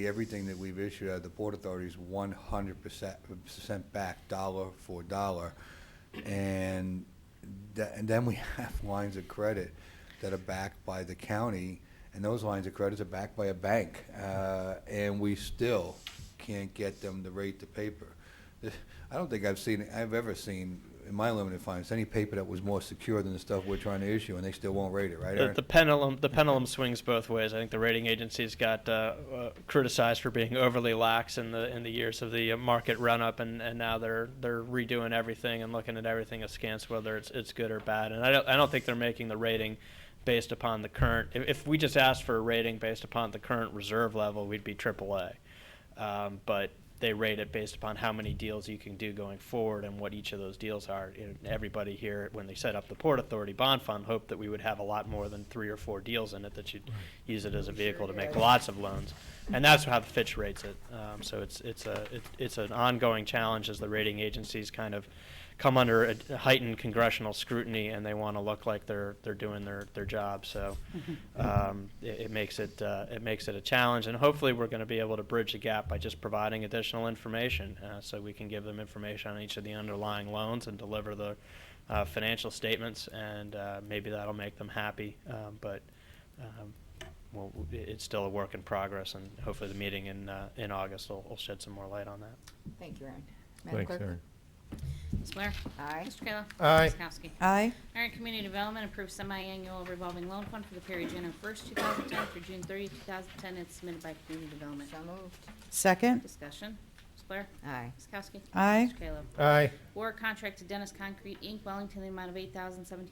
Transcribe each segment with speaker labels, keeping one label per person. Speaker 1: everything that we've issued out of the Port Authority is one hundred percent, percent back, dollar for dollar. And tha- and then we have lines of credit that are backed by the county, and those lines of credits are backed by a bank. Uh, and we still can't get them to rate the paper. I don't think I've seen, I've ever seen, in my limited finance, any paper that was more secure than the stuff we're trying to issue, and they still won't rate it, right,
Speaker 2: The,
Speaker 1: Aaron?
Speaker 2: the pendulum the pendulum swings both ways. I think the rating agencies got uh, uh, criticized for being overly lax in the in the years of the uh, market run up, and, and now they're they're redoing everything and looking at everything askance, whether it's it's good or bad. And I don't I don't think they're making the rating based upon the current. If, if we just asked for a rating based upon the current reserve level, we'd be AAA. Um, but they rate it based upon how many deals you can do going forward and what each of those deals are. And everybody here, when they set up the Port Authority Bond Fund, hoped that we would have a lot more than three or four deals in it, that you'd use it as a vehicle to make lots of loans. And that's how the Fitch rates it. Um, so it's, it's a, it- it's an ongoing challenge as the rating agencies kind of come under a heightened congressional scrutiny and they want to look like they're, they're doing their, their job. So um, it, it makes it, uh, it makes it a challenge. And hopefully we're going to be able to bridge the gap by just providing additional information. Uh, so we can give them information on each of the underlying loans and deliver the uh, financial statements and uh, maybe that'll make them happy. Um, but um, well, it- it's still a work in progress and hopefully the meeting in, uh, in August will, will shed some more light on that.
Speaker 3: Thank you, Aaron. Madam
Speaker 4: Thanks,
Speaker 3: Clerk?
Speaker 4: Aaron.
Speaker 5: Ms. Blair?
Speaker 3: Aye.
Speaker 5: Mr. Kayla?
Speaker 4: Aye.
Speaker 5: Ms. Kowski?
Speaker 6: Aye.
Speaker 5: All right, Community Development approves semi-annual revolving loan fund for the period January 1st, 2010 through June 30th, 2010, and submitted by Community Development.
Speaker 3: So moved.
Speaker 6: Second.
Speaker 5: Discussion, Ms. Blair?
Speaker 3: Aye.
Speaker 5: Ms. Kowski?
Speaker 6: Aye.
Speaker 5: Mr. Kayla?
Speaker 4: Aye.
Speaker 5: War contract to Dennis Concrete Inc., Wellington, the amount of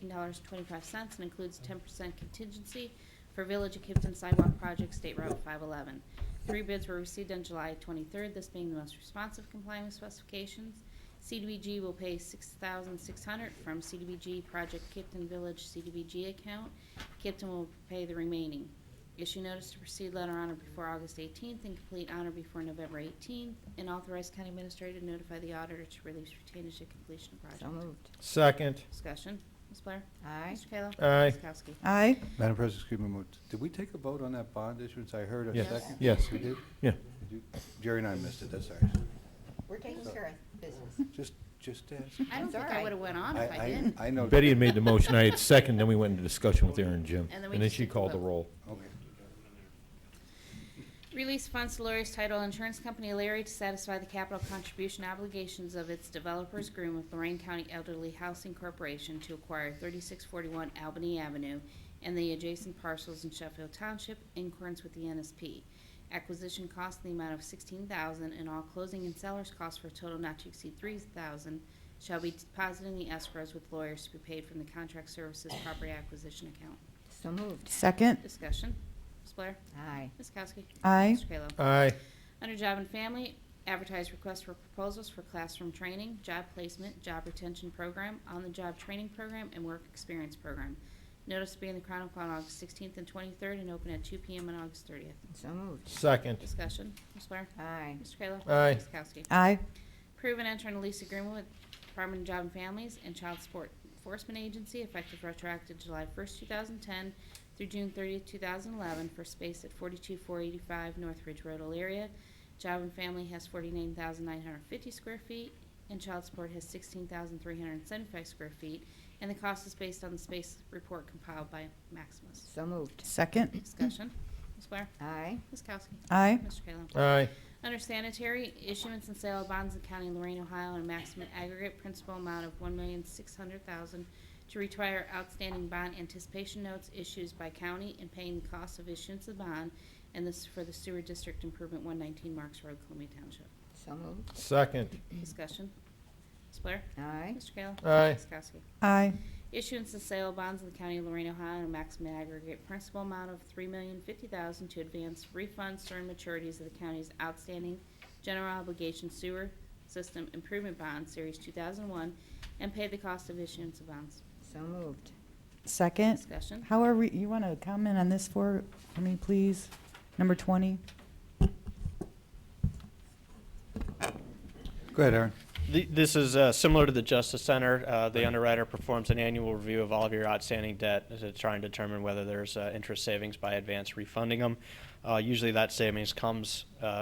Speaker 5: $8,017.25 and includes 10% contingency for Village of Kipton Sidewalk Project, State Route 511. Three bids were received on July 23rd, this being the most responsive complying with specifications. CDBG will pay $6,600 from CDBG Project Kipton Village CDBG account. Kipton will pay the remaining. Issue notice to proceed letter honor before August 18th and complete honor before November 18th, and authorize county administrator to notify the auditor to release retainage at completion of
Speaker 3: So
Speaker 5: project.
Speaker 3: moved.
Speaker 4: Second.
Speaker 5: Discussion, Ms. Blair?
Speaker 3: Aye.
Speaker 5: Mr. Kayla?
Speaker 4: Aye.
Speaker 5: Ms. Kowski?
Speaker 6: Aye.
Speaker 1: Madam President, excuse me, a moment. did we take a vote on that bond issuance? I heard a
Speaker 4: Yes.
Speaker 1: second.
Speaker 4: Yes.
Speaker 1: We did?
Speaker 4: Yeah.
Speaker 1: Did you- Jerry and I missed it, that's all right.
Speaker 3: We're taking care of business.
Speaker 1: Just, just ask.
Speaker 5: I don't
Speaker 3: It's
Speaker 5: think
Speaker 3: all right.
Speaker 5: I would've went on if I didn't.
Speaker 1: I know.
Speaker 4: Betty had made the motion, I had second, then we went into discussion with Aaron and Jim.
Speaker 5: And
Speaker 4: And
Speaker 5: then we
Speaker 4: then
Speaker 5: just
Speaker 4: she
Speaker 5: took the
Speaker 4: called the
Speaker 5: vote.
Speaker 4: roll.
Speaker 1: Okay.
Speaker 5: Release funds to Lori's Title Insurance Company, Larry, to satisfy the capital contribution obligations of its developers agreement with Lorraine County Elderly Housing Corporation to acquire 3641 Albany Avenue and the adjacent parcels in Sheffield Township in accordance with the NSP. Acquisition cost in the amount of 16000 and all closing and seller's costs for a total not to exceed 3000 shall be deposited in the escrows with lawyers to be paid from the contract services property acquisition account.
Speaker 3: So moved.
Speaker 6: Second.
Speaker 5: Discussion. Ms. Blair?
Speaker 3: Aye.
Speaker 5: Ms. Kowski?
Speaker 6: Aye.
Speaker 5: Mr. Kayla?
Speaker 4: Aye.
Speaker 5: Under Job and Family, advertise requests for proposals for classroom training, job placement, job retention program, on-the-job training program, and work experience program. Notice to be in the Chronicle on August 16th and 23rd and open at 2 PM on August 30th.
Speaker 3: So moved.
Speaker 4: Second.
Speaker 5: Discussion, Ms. Blair?
Speaker 3: Aye.
Speaker 5: Mr. Kayla?
Speaker 4: Aye.
Speaker 5: Ms. Kowski?
Speaker 6: Aye.
Speaker 5: Approve and enter in a lease agreement with Department of Job and Families and Child Support Enforcement Agency effective retroactive July 1st, 2010 through June 30th, 2011 for space at 42485 North Ridge Road, Elyria. Job and Family has 49,950 square feet and Child Support has 16,375 square feet. And the cost is based on the space report compiled by Maximus.
Speaker 3: So moved.
Speaker 6: Second.
Speaker 5: Discussion. Ms. Blair?
Speaker 3: Aye.
Speaker 5: Ms. Kowski?
Speaker 6: Aye.
Speaker 5: Mr. Kayla?
Speaker 4: Aye.
Speaker 5: Under sanitary, issuance and sale of bonds in County of Lorraine, Ohio, in a maximum aggregate principal amount of one million six hundred thousand to retire outstanding bond anticipation notes issues by county and paying the cost of issuance of bond, and this is for the sewer district improvement one nineteen Marks Road, Columbia Township.
Speaker 3: So moved.
Speaker 4: Second.
Speaker 5: Discussion. Ms. Blair?
Speaker 3: Aye.
Speaker 5: Mr. Kayla?
Speaker 4: Aye.
Speaker 5: Ms. Kowski?
Speaker 6: Aye.
Speaker 5: Issuance and sale of bonds in the County of Lorraine, Ohio, in a maximum aggregate principal amount of three million fifty thousand to advance refunds certain maturities of the county's outstanding general obligation sewer system improvement bond, Series two thousand one, and pay the cost of issuance of bonds.
Speaker 3: So moved.
Speaker 6: Second.
Speaker 5: Discussion.
Speaker 6: How are we, you want to comment on this for, for me, please? Number 20?
Speaker 1: Go ahead, Aaron.
Speaker 2: Th- This is uh, similar to the Justice Center. Uh, The underwriter performs an annual review of all of your outstanding debt to try and determine whether there's uh, interest savings by advance refunding them. Usually that savings comes uh,